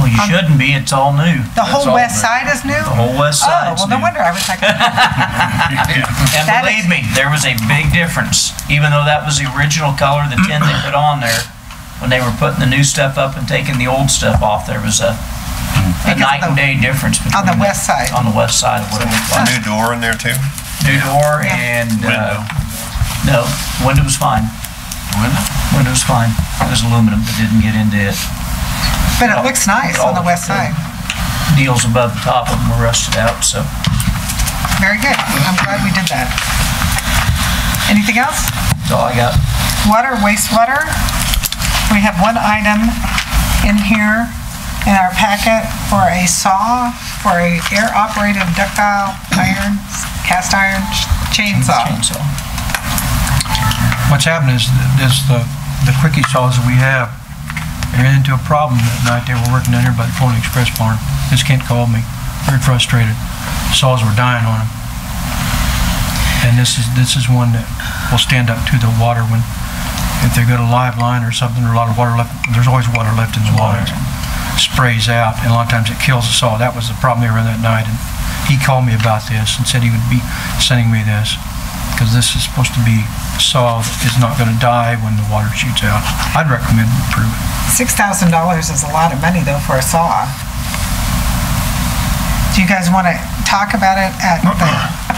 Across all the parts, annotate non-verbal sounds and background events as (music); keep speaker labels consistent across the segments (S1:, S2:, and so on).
S1: You
S2: Um,
S1: shouldn't be, it's all new,
S2: The whole
S3: all
S2: west
S3: new.
S2: side is new?
S1: the whole west
S2: Oh,
S1: side's
S2: well, no
S1: new.
S2: wonder, I was like,
S1: And
S2: That
S1: believe
S2: is-
S1: me, there was a big difference, even though that was the original color, the tin they put on there, when they were putting the new stuff up and taking the old stuff off, there was a, a
S2: Because
S1: night and
S2: the-
S1: day difference between.
S2: the
S1: that-
S2: west side.
S1: On the west side of what it looked like.
S4: New door in there too?
S1: New door and, uh, no, window was fine. Window? was fine. It was aluminum, but didn't get into it.
S2: but it looks nice on the west side.
S1: Deals above the top of them were rusted out, so.
S2: Very good. I'm glad we did that. Anything else?
S1: That's all I got.
S2: Water, wastewater. We have one item in here in our packet for a saw, for a air-operated ductile iron, cast iron chainsaw.
S1: Chainsaw.
S5: What's happened is, is the, the quickie saws that we have, I ran into a problem that night, they were working down here by the Pony Express barn. This Kent called me, very frustrated, saws were dying on him. And this is, this is one that will stand up to the water when, if they got a live line or something, or a lot of water left, there's always water left in the lines. Sprays out, and a lot of times it kills the saw. That was the problem they ran that night, and he called me about this and said he would be sending me this, because this is supposed to be saw that is not gonna die when the water shoots out. I'd recommend we approve it.
S2: $6,000 is a lot of money, though, for a saw. Do you guys want to talk about it at the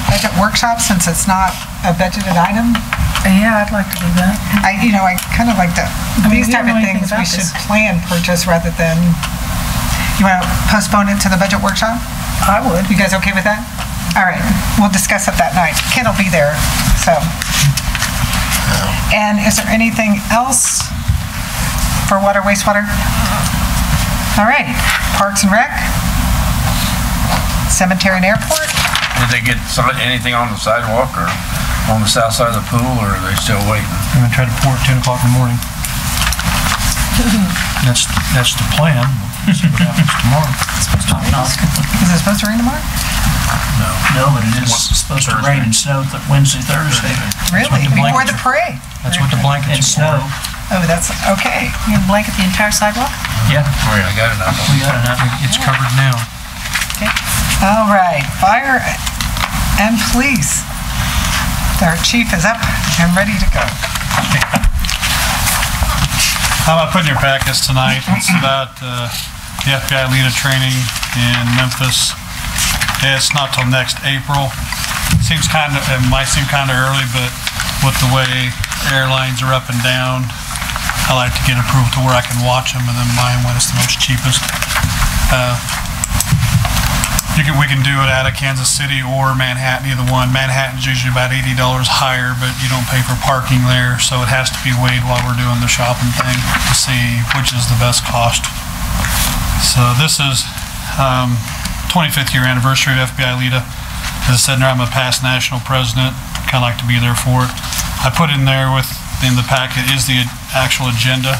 S2: budget workshop, since it's not a budgeted item?
S6: Yeah, I'd like to do that.
S2: I, you know, I kind of like to,
S6: mean,
S2: these
S6: we
S2: type
S6: don't
S2: of
S6: know anything
S2: things, we
S6: about
S2: should
S6: this.
S2: plan purchase rather than, you want to postpone it to the budget workshop? I would. You guys okay with that? All right, we'll discuss it that night. Ken will be there, so. And is there anything else for water, wastewater? All right, Parks and Rec? Cemetery and Airport?
S3: Did they get some- anything on the sidewalk or on the south side of the pool, or are they still waiting?
S5: We're gonna try to pour at ten o'clock in the
S1: (laughs)
S5: morning. That's, that's the plan, We'll see what happens tomorrow.
S2: Is it supposed to rain tomorrow?
S1: No, but it is supposed to rain and snow th- Wednesday, Thursday,
S2: Really?
S5: the
S2: Before the
S5: blankets
S2: parade?
S5: That's what the blankets
S1: and
S5: are for.
S1: snow.
S2: Oh, that's, okay.
S6: You're gonna blanket the entire sidewalk?
S1: Yeah,
S3: Oh, yeah, I got enough.
S1: we got enough.
S5: It's covered now.
S2: All right, fire and police. Our chief is up and ready to go.
S7: Um, I put in your packets tonight, it's about uh, the FBI leader training in Memphis. It's not till next April. Seems kind of, it might seem kind of early, but with the way airlines are up and down, I like to get approval to where I can watch them and then buy them when it's the most cheapest. Uh, You can, we can do it out of Kansas City or Manhattan, either one. Manhattan's usually about eighty dollars higher, but you don't pay for parking there, so it has to be weighed while we're doing the shopping thing to see which is the best cost. So this is, um, twenty-fifth year anniversary of FBI Lita. As I said, now I'm a past national president, kinda like to be there for it. I put in there with, in the packet is the actual agenda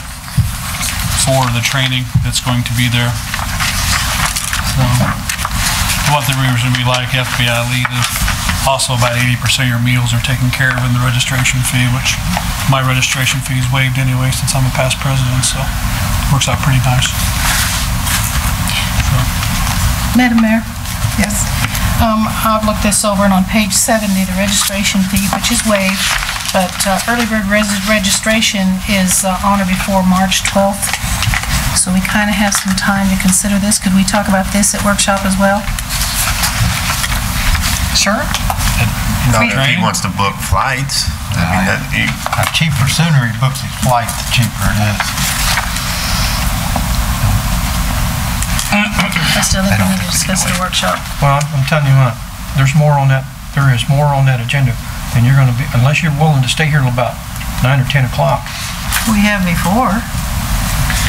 S7: for the training that's going to be there. So, what the rumors would be like, FBI lead is also about eighty percent of your meals are taken care of in the registration fee, which my registration fee is waived anyway since I'm a past president, so works out pretty nice.
S6: Madam Mayor?
S2: Yes?
S6: Um, I've looked this over, and on page 70, the registration fee, which is waived, but uh, early bird res- registration is uh, on or before March 12th, so we kind of have some time to consider this. Could we talk about this at workshop as well?
S2: Sure?
S4: Not if he
S3: Train?
S4: wants to book flights. I mean, that, he,
S8: The cheaper sooner he books his flight, the cheaper it is.
S6: I still think we need to discuss it at workshop.
S5: Well, I'm- I'm telling you what, there's more on that, there is more on that agenda than you're gonna be, unless you're willing to stay here till about nine or 10 o'clock,
S6: We have before.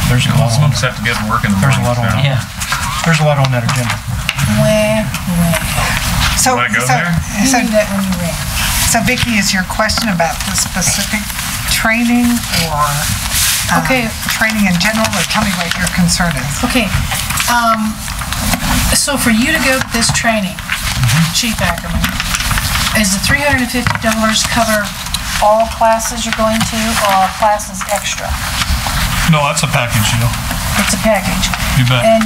S5: there's a lot on,
S3: Folks have to get to work in the
S5: there's a lot on,
S1: Yeah.
S5: there's a lot on that agenda.
S6: Where, where?
S2: So,
S3: Wanna go
S2: so-
S3: there?
S6: You
S2: so,
S6: knew that when you read.
S2: so Vicki, is your question about the specific training or um,
S6: Okay.
S2: training in general, or tell me what your concern is?
S6: Okay, um, so for you to go to this training,
S7: Mm-hmm.
S6: Chief Ackerman, is the three hundred and fifty dollars cover all classes you're going to, or are classes extra?
S7: No, that's a package deal.
S6: It's a package.
S7: You bet.
S6: And